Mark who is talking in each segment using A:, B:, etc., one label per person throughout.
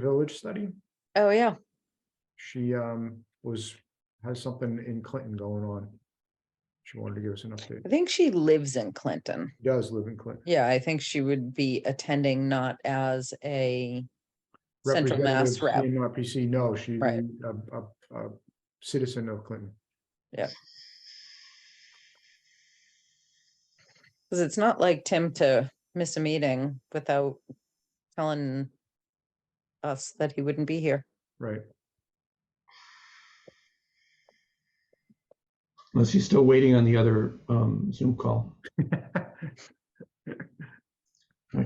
A: Village Study.
B: Oh, yeah.
A: She um was, has something in Clinton going on. She wanted to give us an update.
B: I think she lives in Clinton.
A: She Does live in Clinton.
B: Yeah, I think she would be attending not as a Central Mass rep.
A: Representative CMRPC, no, she's
B: Right.
A: a, a, a citizen of Clinton.
B: Because it's not like Tim to miss a meeting without telling us that he wouldn't be here.
A: Right.
C: Unless he's still waiting on the other um, Zoom call. I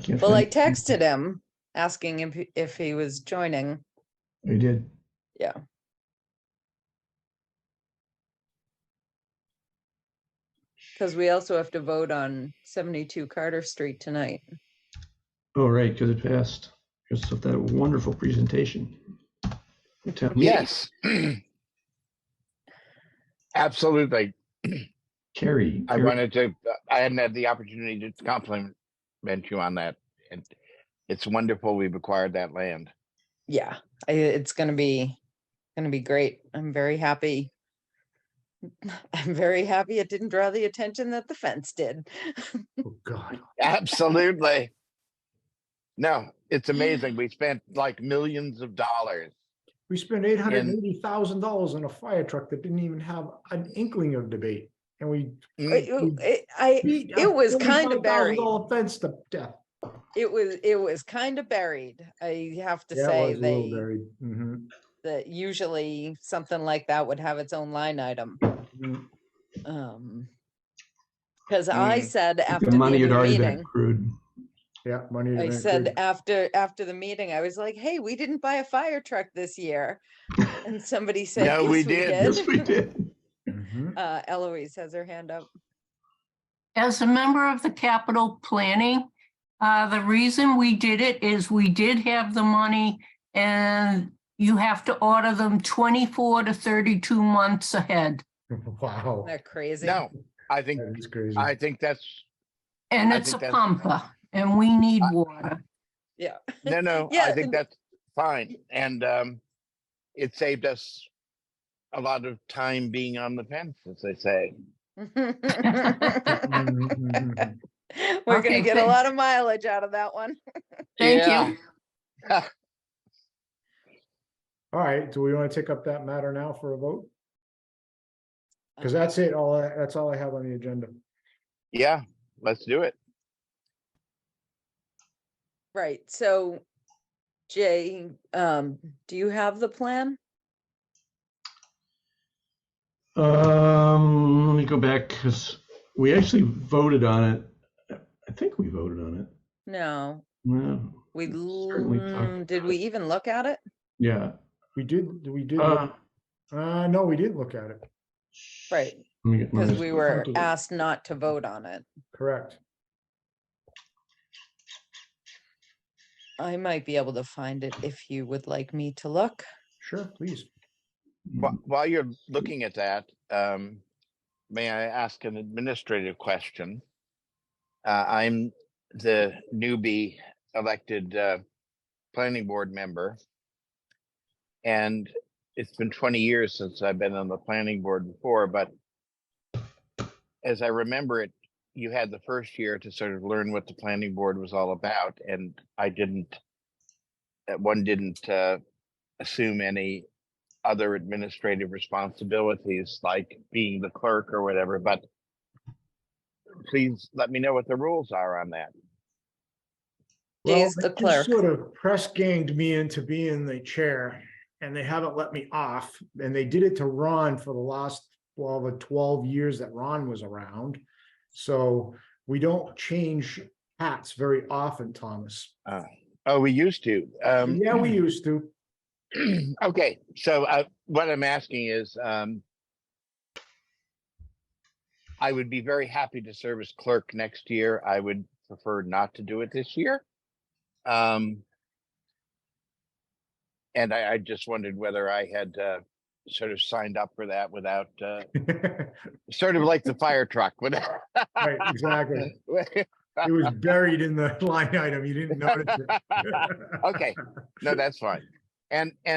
C: can't.
B: Well, I
C: find-
B: texted him asking if, he- if he was joining.
C: I did.
B: Yeah. Because we also have to vote on seventy-two Carter Street tonight.
C: Oh, right, because it passed. Because of that wonderful presentation. Town meeting
D: Yes. Absolutely.
C: Carrie.
D: I
C: Carrie-
D: wanted to, I hadn't had the opportunity to compliment you on that. And it's wonderful we've acquired that land.
B: Yeah, I- it's gonna be, gonna be great. I'm very happy. I'm very happy it didn't draw the attention that the fence did.
A: Oh, God.
D: Absolutely. No, it's amazing. We spent like millions of dollars.
A: We spent eight hundred and eighty thousand dollars on a fire truck that didn't even have an inkling of debate and we.
D: Mm,
B: It-
A: Mm.
B: it- I,
A: beat a
B: It was kinda
A: $45,000
B: buried.
A: Fence to death.
B: it was, it was kind of buried. I have to
A: Yeah, it
B: say,
A: was a little
B: they,
A: buried. Mhm.
B: that usually something like that would have its own line item.
A: Mm.
B: Um, because I
D: Mm.
B: said after
C: The
B: the
C: money had
B: other
C: already been
B: meeting,
C: accrued.
A: Yeah, money. had
B: I
A: been
B: said
A: accrued.
B: after, after the meeting, I was like, hey, we didn't buy a fire truck this year. And somebody said,
D: No, we
B: yes, we
D: did.
C: Yes, we
B: did.
C: did.
A: Mhm.
B: Uh, Eloise has her hand up.
E: As a member of the capital planning, uh, the reason we did it is we did have the money and you have to order them 24 to 32 months ahead.
A: Mm-hmm. Wow,
B: Isn't that crazy?
D: No, I think,
A: that is crazy.
D: I think that's,
E: And
D: I
E: it's a
D: think that's-
E: pumper and we need
D: I-
E: water.
B: Yeah.
D: no, no, I
B: Yeah,
D: think
B: th-
D: that's fine. And um, it saved us a lot of time being on the fence, as they say.
B: We're
A: Mhm, mhm, mhm.
B: gonna
E: Okay,
B: get a
E: good.
B: lot of mileage out of that one.
E: Thank
D: Yeah.
E: you.
A: All right, do we want to take up that matter now for a vote?
B: Uh,
A: Because that's it, all, I- that's all I have on the agenda.
D: Yeah, let's do it.
B: Right, so Jay, um, do you have the plan?
C: Um, let me go back because we actually voted on it. I think we voted on it.
B: No,
C: Well,
B: we,
A: Mm,
C: certainly talked
B: l- did
C: about
B: we
C: it.
B: even look at it?
C: Yeah.
A: We did, we did,
C: Uh,
A: look- uh, no, we did look at it,
B: Right,
C: let me get my-
B: because we were
A: did we-
B: asked not to vote on it.
A: correct.
B: I might be able to find it if you would like me to look.
A: Sure, please.
C: Mm.
D: Wh- While you're looking at that, um, may I ask an administrative question? Uh, I'm the newbie elected, uh, planning board member. And it's been twenty years since I've been on the planning board before, but as I remember it, you had the first year to sort of learn what the planning board was all about, and I didn't, that one didn't, uh, assume any other administrative responsibilities like being the clerk or whatever, but please let me know what the rules are on that.
A: Well,
B: Jay's
A: they
B: the
A: just
B: clerk.
A: Sort of press ganged me into being the chair and they haven't let me off. And they did it to Ron for the last twelve or twelve years that Ron was around. So we don't change hats very often, Thomas.
D: Oh, we used to. Um,
A: Yeah, we used to.
D: okay, so uh, what I'm asking is, um, I would be very happy to serve as clerk next year. I would prefer not to do it this year. Um, and I, I just wondered whether I had uh, sort of signed up for that without uh,
A: Right,
D: sort of like the fire truck without
A: exactly.
D: wi-
A: It was buried in the line item. You didn't notice it.
D: Okay, no, that's fine. And, and